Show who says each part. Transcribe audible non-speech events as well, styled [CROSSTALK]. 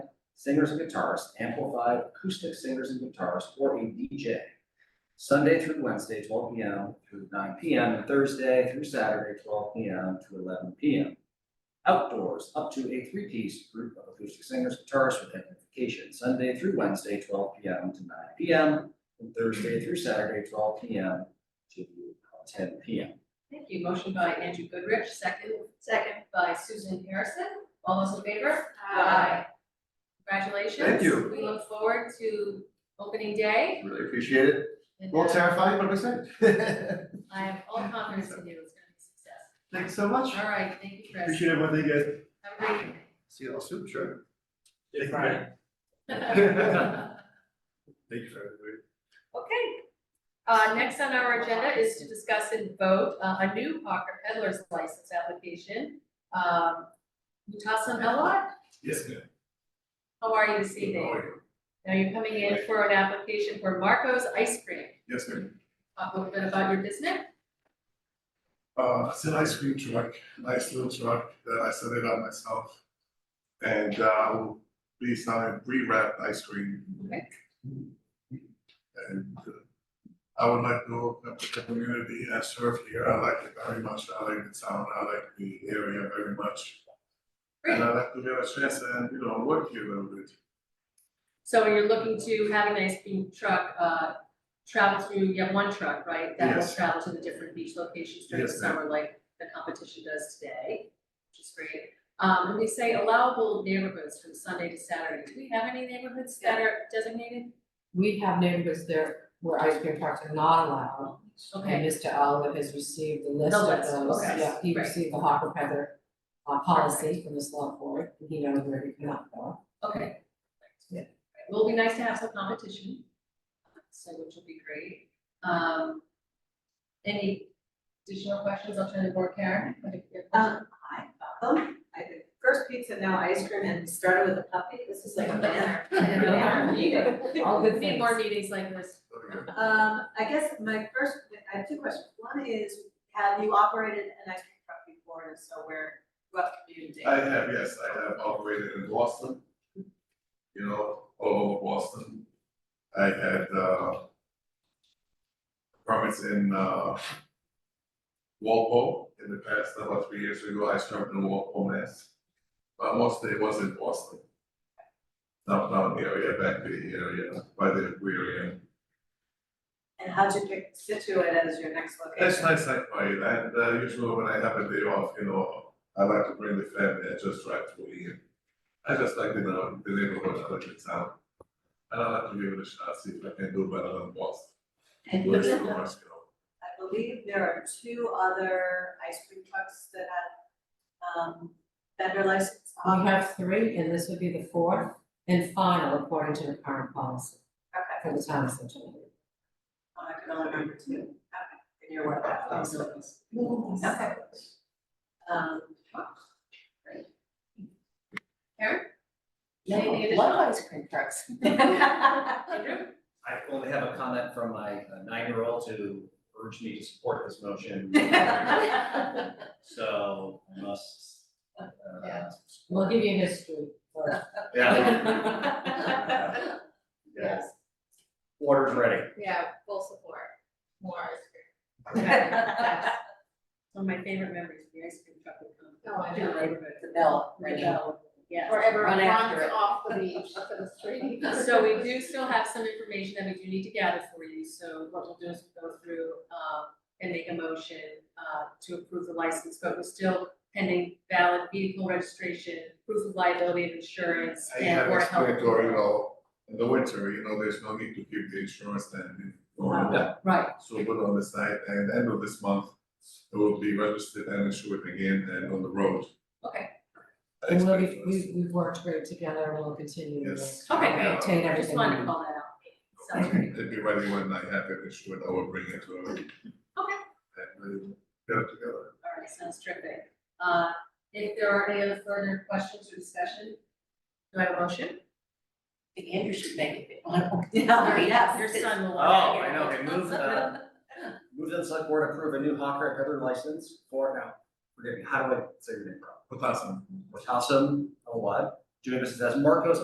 Speaker 1: singers and guitarists, amplified acoustic singers and guitarists, or a DJ. Sunday through Wednesday, twelve P M through nine P M, and Thursday through Saturday, twelve P M to eleven P M. Outdoors, up to a three-piece group of acoustic singers, guitarists with amplification, Sunday through Wednesday, twelve P M to nine P M, and Thursday through Saturday, twelve P M to uh, ten P M.
Speaker 2: Thank you. Motion by Andrew Goodrich, second
Speaker 3: Second.
Speaker 2: by Susan Harrison. All those in favor? Congratulations.
Speaker 4: Thank you.
Speaker 2: We look forward to opening day.
Speaker 4: Really appreciate it.
Speaker 2: and,
Speaker 4: A little
Speaker 2: uh,
Speaker 4: terrifying, but I'm [LAUGHS] excited.
Speaker 2: I have all confidence in you. It's gonna be a success.
Speaker 4: Thanks so much.
Speaker 2: All right, thank you, Chris.
Speaker 4: Appreciate everything you guys.
Speaker 2: Have a great evening.
Speaker 4: See you all soon, sure.
Speaker 5: Yeah,
Speaker 4: Thank you.
Speaker 5: Brian.
Speaker 4: [LAUGHS]
Speaker 2: Okay.
Speaker 4: Thank you for everybody.
Speaker 2: Uh, next on our agenda is to discuss and vote uh, a new Hawker Peddler's license application. Um, Mutasan Elwad,
Speaker 5: Yes, ma'am.
Speaker 2: how are you this
Speaker 5: How
Speaker 2: evening?
Speaker 5: are you?
Speaker 2: Now you're coming in for an application for Marco's Ice Cream.
Speaker 5: Yes, ma'am.
Speaker 2: Talk a little bit about your business.
Speaker 5: Uh, it's an ice cream truck, nice little truck that I set it up myself. And, uh, we'll be selling pre-wrapped ice cream.
Speaker 2: Okay.
Speaker 5: And uh, I would like to open up the community I serve here. I like it very much. I like the town. I like the area very much. And I'd like to get a chance and, you know, work here a little bit.
Speaker 2: So you're looking to have an ice cream truck, uh, travel through, you have one truck, right? That will
Speaker 5: Yes.
Speaker 2: travel to the different beach locations during the
Speaker 5: Yes, ma'am.
Speaker 2: summer, like the competition does today, which is great. Um, and we say allowable neighborhoods from Sunday to Saturday. Do we have any neighborhoods that are designated?
Speaker 6: We have neighborhoods there where ice cream trucks are not allowed.
Speaker 2: Okay,
Speaker 6: And Mr. Oliver has received the list of
Speaker 2: The list,
Speaker 6: those,
Speaker 2: okay,
Speaker 6: yeah, he
Speaker 2: great.
Speaker 6: received the Hopper Feather uh policy from the select board, and he knows where he cannot go.
Speaker 2: okay.
Speaker 6: Yeah.
Speaker 2: Well, it'll be nice to have some competition, so which will be great. Um, any additional questions? I'll turn to board Karen. I think you have-
Speaker 3: Um, I bought them, I did first pizza, now ice cream, and started with a puppy, this is like a banner.
Speaker 2: Yeah, yeah.
Speaker 6: All good
Speaker 2: We need
Speaker 6: things.
Speaker 2: more meetings like this.
Speaker 7: [LAUGHS]
Speaker 5: Okay.
Speaker 3: Um, I guess my first, I have two questions, one is, have you operated an ice cream truck before, and so where, what community?
Speaker 5: I have, yes, I have operated in Boston, you know, all over Boston. I had, uh, permits in, uh, Walpole in the past, about three years ago, I started in Walpole, Mass. But mostly it was in Boston. Downtown area, back Bay area, by the aquarium.
Speaker 3: And how'd you pick Situate as your next
Speaker 5: That's
Speaker 3: location?
Speaker 5: nice, I find, and, uh, usually when I have a day off, you know, I like to bring the family, I just drive to here. I just like, you know, the neighborhood, I like the town. And I like to give it a shot, see if I can do better than Boston.
Speaker 3: And
Speaker 5: Works
Speaker 3: you-
Speaker 5: for us, you know.
Speaker 3: I believe there are two other ice cream trucks that have, um, vendor license.
Speaker 6: We have three, and this would be the fourth and final according to the current policy
Speaker 3: Okay,
Speaker 6: for the town of Situate.
Speaker 3: I can only remember two, okay, and you're one of them. Okay. Um,
Speaker 2: Anything additional?
Speaker 6: ice cream trucks.
Speaker 2: Andrew?
Speaker 1: I only have a comment from my uh, nine-year-old to urge me to support this motion. So I must. uh,
Speaker 2: Yeah.
Speaker 6: We'll give you history first.
Speaker 1: uh,
Speaker 2: Yes,
Speaker 1: Order's ready.
Speaker 2: [LAUGHS] yeah, full support,
Speaker 7: [LAUGHS]
Speaker 2: more ice cream.
Speaker 6: [LAUGHS]
Speaker 3: Um, [LAUGHS]
Speaker 2: That's One of my favorite memories, the ice cream truck would come.
Speaker 7: Oh, I know.
Speaker 2: The
Speaker 3: bell
Speaker 2: ringing. Yeah.
Speaker 7: Or everyone
Speaker 3: Run
Speaker 7: runs
Speaker 3: after it.
Speaker 7: off the beach to the street.
Speaker 2: [LAUGHS] [LAUGHS] So we do still have some information that we do need to gather for you, so what we'll do is we'll go through, um, and make a motion, uh, to approve the license, but we're still pending valid vehicle registration, proof of liability and insurance,
Speaker 5: I
Speaker 2: and
Speaker 5: have
Speaker 2: or health.
Speaker 5: explanatory, you know, in the winter, you know, there's no need to keep the insurance and, you know,
Speaker 2: Right,
Speaker 5: so put on the site, and end of this month, it will be registered and insured again and on the road.
Speaker 2: okay,
Speaker 5: I
Speaker 6: And we'll
Speaker 5: expect
Speaker 6: be,
Speaker 5: us.
Speaker 6: we, we've worked great together, and we'll continue to
Speaker 5: Yes.
Speaker 2: Okay, great.
Speaker 6: maintain
Speaker 2: I
Speaker 6: everything.
Speaker 2: just
Speaker 6: we
Speaker 2: wanted to
Speaker 6: do.
Speaker 2: call that out. Sounds great.
Speaker 5: It'd be ready when I have it, it's when I will bring it to her.
Speaker 2: Okay.
Speaker 5: And we get it together.
Speaker 2: All right, sounds terrific. Uh, if there are any other further questions or discussion, do I have a motion?
Speaker 7: Andrew should make it, they want to-
Speaker 3: [LAUGHS] Yeah, yes.
Speaker 2: Your son will.
Speaker 1: Uh, Oh,
Speaker 2: love it.
Speaker 1: I know, they moved, uh, moved to the select board, approve a new hawker peddler license for, now, forgive me, how do I say your name?
Speaker 5: But that's-
Speaker 1: Wachasam, a what? Doing business as Marcos